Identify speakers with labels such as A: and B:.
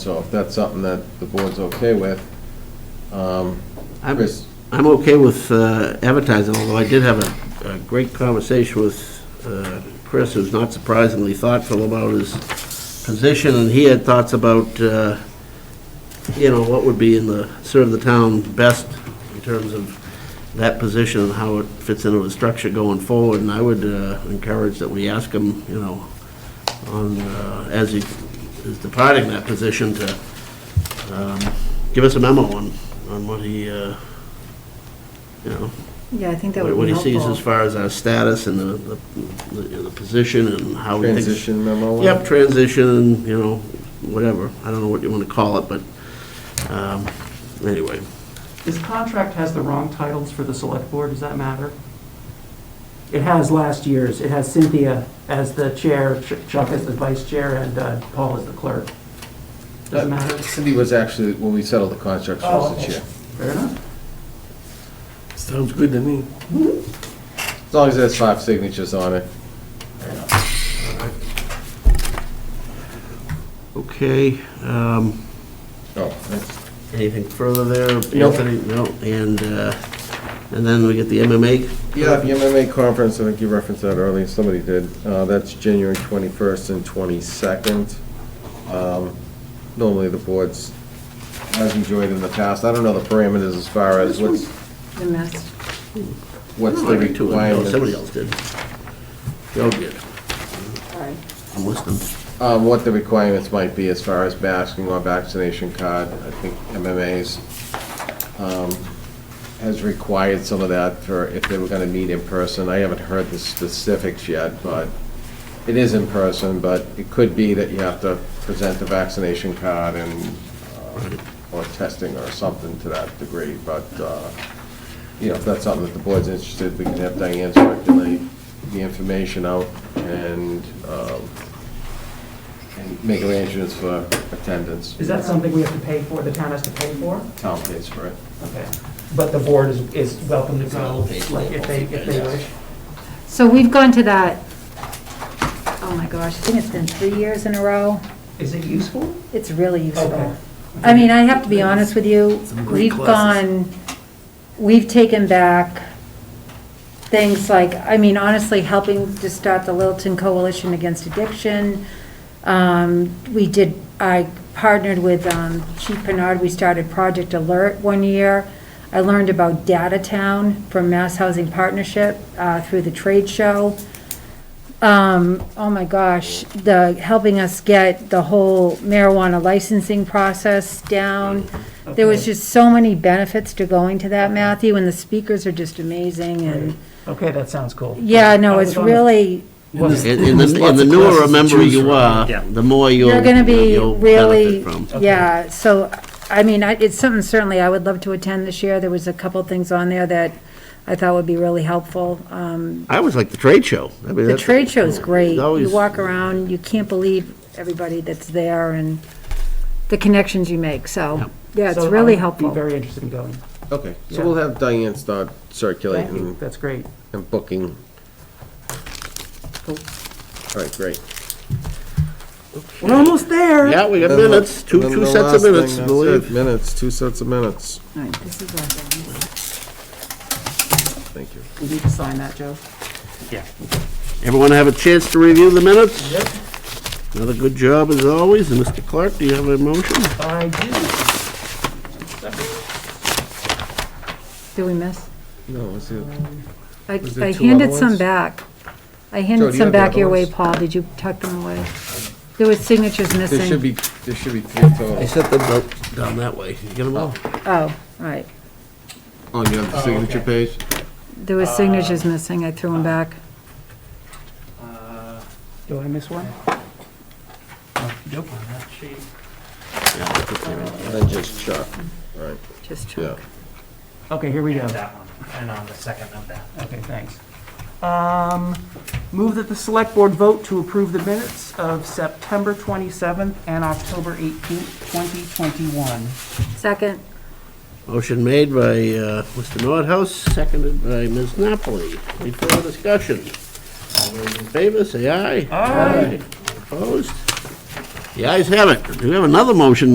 A: So if that's something that the board's okay with, um,
B: I'm-
A: Chris,
B: I'm okay with uh, advertising, although I did have a, a great conversation with uh, Chris, who's not surprisingly thoughtful about his position, and he had thoughts about, uh, you know, what would be in the, serve the town best in terms of that position and how it fits into the structure going forward, and I would uh, encourage that we ask him, you know, on, uh, as he is departing that position to um, give us a memo on, on what he, uh, you know,
C: Yeah, I think that
B: what
C: would
B: what
C: be
B: he sees as
C: helpful.
B: far as our status and the, the, the position and how he thinks.
A: transition memo?
B: Yep, transition, you know, whatever, I don't know what you want to call it, but, um, anyway.
D: This contract has the wrong titles for the select board, does that matter? It has last year's, it has Cynthia as the chair, Ch- Chuck as the vice chair, and uh, Paul as the clerk. Doesn't matter?
A: Cindy was actually, when we settled the contract, she
D: Oh,
A: was the
D: okay.
A: chair.
D: Fair enough.
E: Sounds good to me.
A: As long as there's five signatures on it.
B: Okay, um,
A: Oh, that's-
B: Anything further there,
A: Nope.
B: Anthony? No, and, uh, and then we get the MMA.
A: yeah, the MMA conference, I think you referenced that earlier, somebody did. Uh, That's January 21st and 22nd. Um, Normally, the board's, has enjoyed in the past. I don't know the parameters as far as what's,
C: The mist.
A: what's
B: No,
A: the
B: I did too. No,
A: requirement.
B: Somebody else did. Joe did.
C: Sorry.
B: I'm listening.
A: um, what the requirements might be as far as masking or vaccination card. I think MMA's um, has required some of that for if they were going to meet in person. I haven't heard the specifics yet, but it is in person, but it could be that you have to present the vaccination card and, uh, or testing or something to that degree, but, uh, you know, if that's something that the board's interested, we can have Diane circulate the information out and um, and make arrangements for attendance.
D: Is that something we have to pay for, the town has to pay for?
A: Town pays for it.
D: Okay. But the board is, is welcome to go,
B: It's all paid
D: like,
B: for.
D: if they, if they wish.
C: So we've gone to that, oh my gosh, I think it's been three years in a row.
D: Is it useful?
C: It's really
D: Okay.
C: useful. I mean, I have to be honest with you,
B: Some great
C: we've
B: classes.
C: gone, we've taken back things like, I mean, honestly, helping to start the Littleton Coalition Against Addiction. Um, We did, I partnered with um, Chief Bernard, we started Project Alert one year. I learned about Data Town from Mass Housing Partnership uh, through the trade show um, oh my gosh, the, helping us get the whole marijuana licensing process down. There was
D: Okay.
C: just so many benefits to going to that, Matthew, and the speakers are just amazing, and,
D: Okay, that sounds cool.
C: yeah,
D: I
C: no,
D: was
C: it's
D: on the-
C: really,
B: And and the, and
E: Lots
B: the
E: of
B: newer a
E: classes to
B: member
E: choose
B: you
E: from.
B: are,
E: Yeah.
B: the more you'll.
C: you're gonna be
B: you'll
C: really,
B: benefit from.
C: yeah, so, I mean, I, it's something certainly I would love to attend this year, there was a couple things on there that I thought would be really helpful, um,
B: I always like the trade show. I mean,
C: the
B: that's-
C: trade show's great,
B: it's
C: you
B: always-
C: walk around, you can't believe everybody that's there and the connections you make, so, yeah, it's
D: So
C: really
D: I would Be
C: helpful.
D: very interested in going.
A: Okay, so
D: Yeah.
A: we'll have Diane start
D: Thank you,
A: circulating
D: that's great.
A: and booking.
D: Cool.
A: All right, great.
D: We're almost there.
B: Yeah, we got
A: Then the-
B: minutes, two,
A: then
B: two
A: the
B: sets of
A: last thing,
B: minutes, I
A: that's it,
B: believe.
A: Minutes, two sets of minutes.
C: All right, this is all done.
A: Thank you.
D: We need to sign that, Joe.
E: Yeah.
B: Everyone have a chance to review the minutes? Yep. Another good job as always. And Mr. Clark, do you have a motion?
D: I do.
C: Did we miss?
A: No, let's see.
C: I
A: Was there
C: I
A: two
C: handed
A: other
C: some
A: ones?
C: back. I
A: Joe,
C: handed
A: do you
C: some
A: have the
C: back
A: other
C: your way,
A: ones?
C: Paul. Did you tuck them away? There were signatures
A: There should
C: missing.
A: be, there should be three
B: I
A: total.
B: set them down- down that way. You get them all?
C: Oh, right.
A: On your
D: Oh,
A: signature page?
C: There were signatures missing. I threw them back.
D: Do I miss one?
E: Nope, on that sheet.
A: And then just Chuck. All right,
C: Just check.
A: yeah.
D: Okay, here we go.
E: That one, and on the second of that.
D: Okay, thanks. Um, Move that the select board vote to approve the minutes of September 27th and October 18th, 2021.
C: Second,
B: Motion made by uh, Mr. Nordhaus, seconded by Ms. Napoli. Any further discussion? All those in favor, say aye. Aye. Opposed? The ayes have it. Do we have another motion